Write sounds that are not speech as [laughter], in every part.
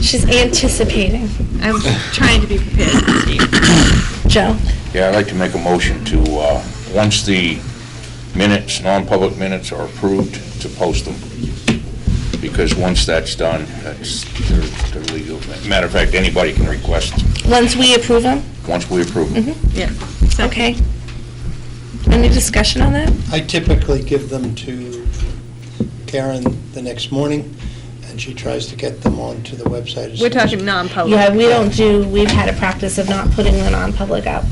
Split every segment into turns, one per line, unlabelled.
She's anticipating.
I'm trying to be prepared, Steve.
Joe?
Yeah, I'd like to make a motion to, uh, once the minutes, non-public minutes are approved, to post them. Because once that's done, that's, they're they're legal. Matter of fact, anybody can request,
Once we approve them?
once we approve them.
Yeah.
Okay. Any discussion on that?
I typically give them to Karen the next morning, and she tries to get them onto the website. as
We're
soon as-
talking non-public.
Yeah, we don't do, we've had a practice of not putting the non-public up.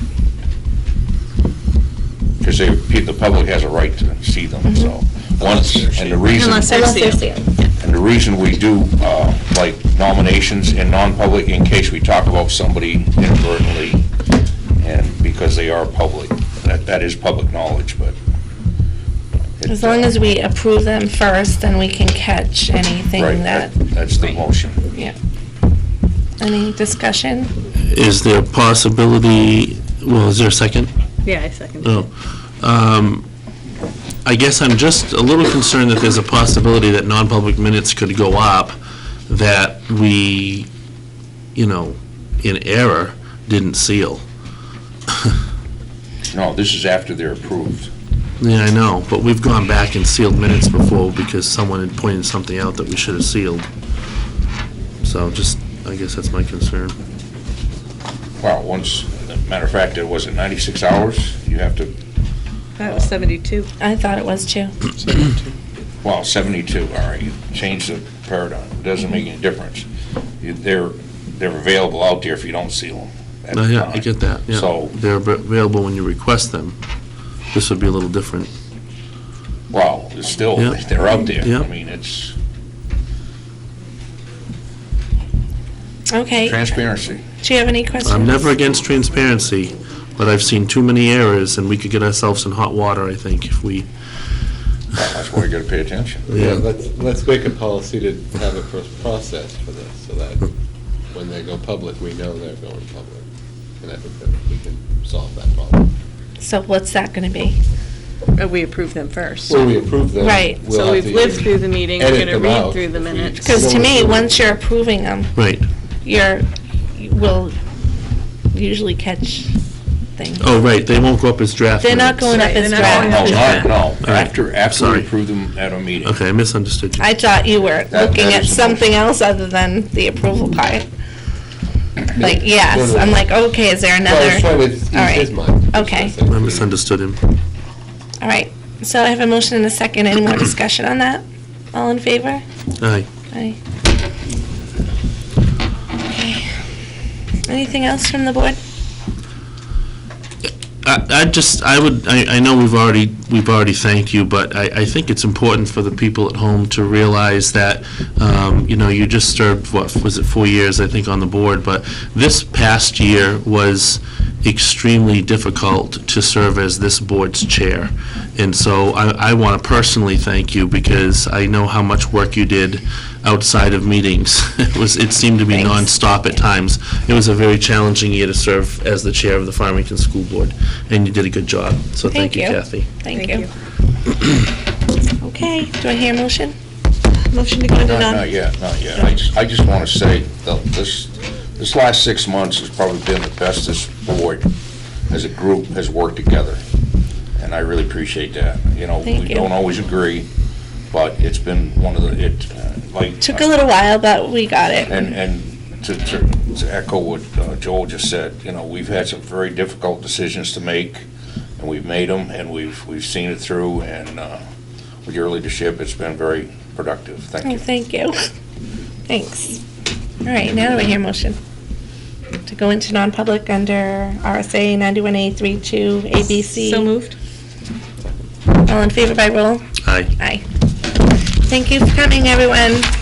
Because they, pe- the public has a right to see them, so. Once, and the reason.
Unless they're
Unless they're
sealed.
sealed.
And the reason we do, uh, like nominations in non-public, in case we talk about somebody inadvertently, and because they are public, that, that is public knowledge, but. it,
As long
uh,
as we approve them first, then we can catch
Right,
anything that,
That's the
Right.
motion.
yeah. Any discussion?
Is there possibility, well, is there a second?
Yeah, I second.
No. Um, I guess I'm just a little concerned that there's a possibility that non-public minutes could go up, that we, you know, in error, didn't seal.
No, this is after they're approved.
Yeah, I know, but we've gone back and sealed minutes before because someone had pointed something out that we should have sealed. So just, I guess that's my concern.
Wow, once, matter of fact, it was it 96 hours? You have to,
That was 72.
I thought it was too.
well, 72, all right, you changed the paradigm. It doesn't make any difference. You- They're, they're available out there if you don't seal them. at
No,
the
Oh, Yeah, I
time.
get that, yeah.
So-
They're av- available when you request them. This would be a little different.
Well, it's still,
Yeah.
they're out there.
Yeah.
I mean, it's
Okay,
transparency.
do you have any questions?
I'm never against transparency, but I've seen too many errors, and we could get ourselves in hot water, I think, if we,
That's why you gotta pay attention.
Yeah,
yeah,
let's, let's make a policy to have a first process for this, so that when they go public, we know they're going public. And I think that we can solve that problem.
So what's that gonna be?
Uh, We approved them first.
When we approve them.
Right.
we'll
So
have
we've
to
lived through the meeting, we're
edit
going to
them
read
out
through the
if we-
minutes.
Because to me, once you're approving them,
right.
you're, you will usually catch things.
Oh, right, they won't go up as draft
They're not
minutes.
going up
Right,
as
they're not
No,
going
draft.
no, not, no,
right.
after, after we
Sorry.
approve them at a meeting.
Okay, I misunderstood you.
I thought you were
that
looking at
is the
something
motion.
else other than the approval part. Like, yes,
no.
I'm like, okay, is there
Well, I was trying
another?
to ease
All right.
his mind. That's what
Okay.
said.
I misunderstood him.
All right, so I have a motion and a second. Any more discussion on that? All in favor?
Aye.
Aye. Okay. Anything else from the board?
I, I just, I would, I, I know we've already, we've already thanked you, but I, I think it's important for the people at home to realize that, um, you know, you just served, what, was it four years, I think, on the board, but this past year was extremely difficult to serve as this board's chair. And so I, I want to personally thank you because I know how much work you did outside of meetings. [laughs] It was, it seemed to be
Thanks.
nonstop stop at times. It was a very challenging year to serve as the chair of the Farmington School Board, and you did a good job. So
Thank
thank you,
you.
Kathy.
Thank you. [coughs] Okay, do I hear a motion?
Motion to go into
Not, not yet, not yet. I just, I just wanna say, that this, this last six months has probably been the best this board, as a group, has worked together. And I really appreciate that. You know,
Thank
we
you.
don't always agree, but it's been one of the, it, uh, like.
Took a little while, but we got it.
And, and to, to to echo what uh, Joel just said, you know, we've had some very difficult decisions to make, and we've made them, and we've, we've seen it through, and uh, with your leadership, it's been very productive. Thank
Oh,
you.
thank you. [laughs] Thanks. All right, now do I hear a motion? To go into non-public under RSA 91A 32 ABC.
So moved.
All in favor by roll?
Aye.
Aye. Thank you for coming, everyone.